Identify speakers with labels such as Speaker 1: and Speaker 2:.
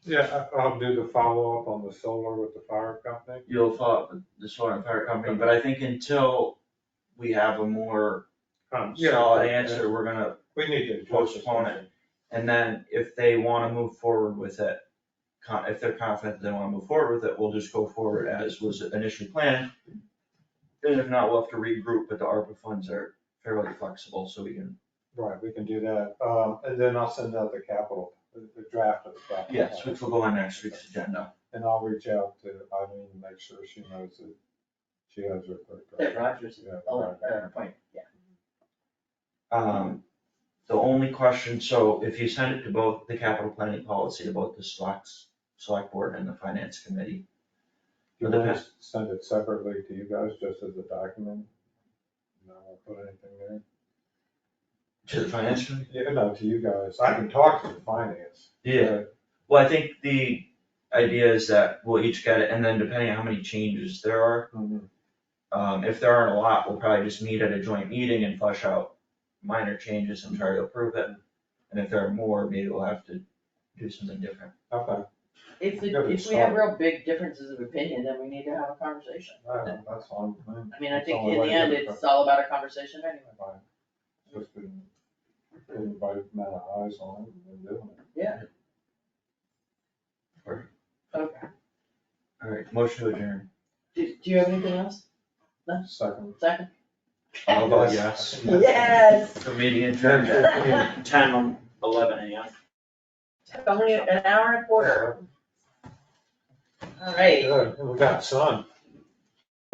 Speaker 1: Yeah, I- I'll do the follow-up on the solar with the fire company.
Speaker 2: You'll follow up with the solar and fire company, but I think until we have a more
Speaker 1: Um, yeah,
Speaker 2: solid
Speaker 1: yeah,
Speaker 2: answer, we're gonna,
Speaker 1: We need to.
Speaker 2: Postpone it. and then if they wanna move forward with it, con, if they're confident they wanna move forward with it, we'll just go forward as was initially planned. And if not, we'll have to regroup, but the ARPA funds are fairly flexible, so we can,
Speaker 1: Right, we can do that. Um, and then I'll send out the capital, the the draft of the capital.
Speaker 2: yes, which will go on next week's agenda.
Speaker 1: And I'll reach out to Eileen, and make sure she knows that she has her. clerk.
Speaker 3: That Rogers is
Speaker 1: Yeah,
Speaker 3: all
Speaker 1: right.
Speaker 3: at an appointment, yeah.
Speaker 2: Um, the only question, so if you send it to both the capital planning policy, to both the select, select board and the finance committee,
Speaker 1: Do you want to send it separately to you guys, just as a document? No, I'll put anything there.
Speaker 2: To the finance committee?
Speaker 1: Yeah, no, to you guys. I can talk to the finance.
Speaker 2: Well, I think the idea is that we'll each get it, and then depending on how many changes there are,
Speaker 1: but- Mhm.
Speaker 2: um, if there aren't a lot, we'll probably just meet at a joint meeting and flush out minor changes and try to approve it. And if there are more, maybe we'll have to do something different.
Speaker 1: Okay,
Speaker 3: If we,
Speaker 1: Good
Speaker 3: if we have
Speaker 1: start.
Speaker 3: real big differences of opinion, then we need to have a conversation.
Speaker 1: All right, that's fine. with me.
Speaker 3: I mean, I
Speaker 1: That's
Speaker 3: think
Speaker 1: all
Speaker 3: in the
Speaker 1: like
Speaker 3: end,
Speaker 1: it.
Speaker 3: it's all about a conversation anyway.
Speaker 1: Fine. Just been, everybody, man, eyes on it, and doing it.
Speaker 3: Okay,
Speaker 2: Alright, motion to adjourn.
Speaker 3: do, do you have anything else?
Speaker 1: Second.
Speaker 3: Second?
Speaker 2: I'll vote yes.
Speaker 3: Yes.
Speaker 2: The meeting
Speaker 1: Ten fifteen.
Speaker 2: ten, eleven AM.
Speaker 3: Only an hour and a quarter. All right.
Speaker 1: Good, we got sun.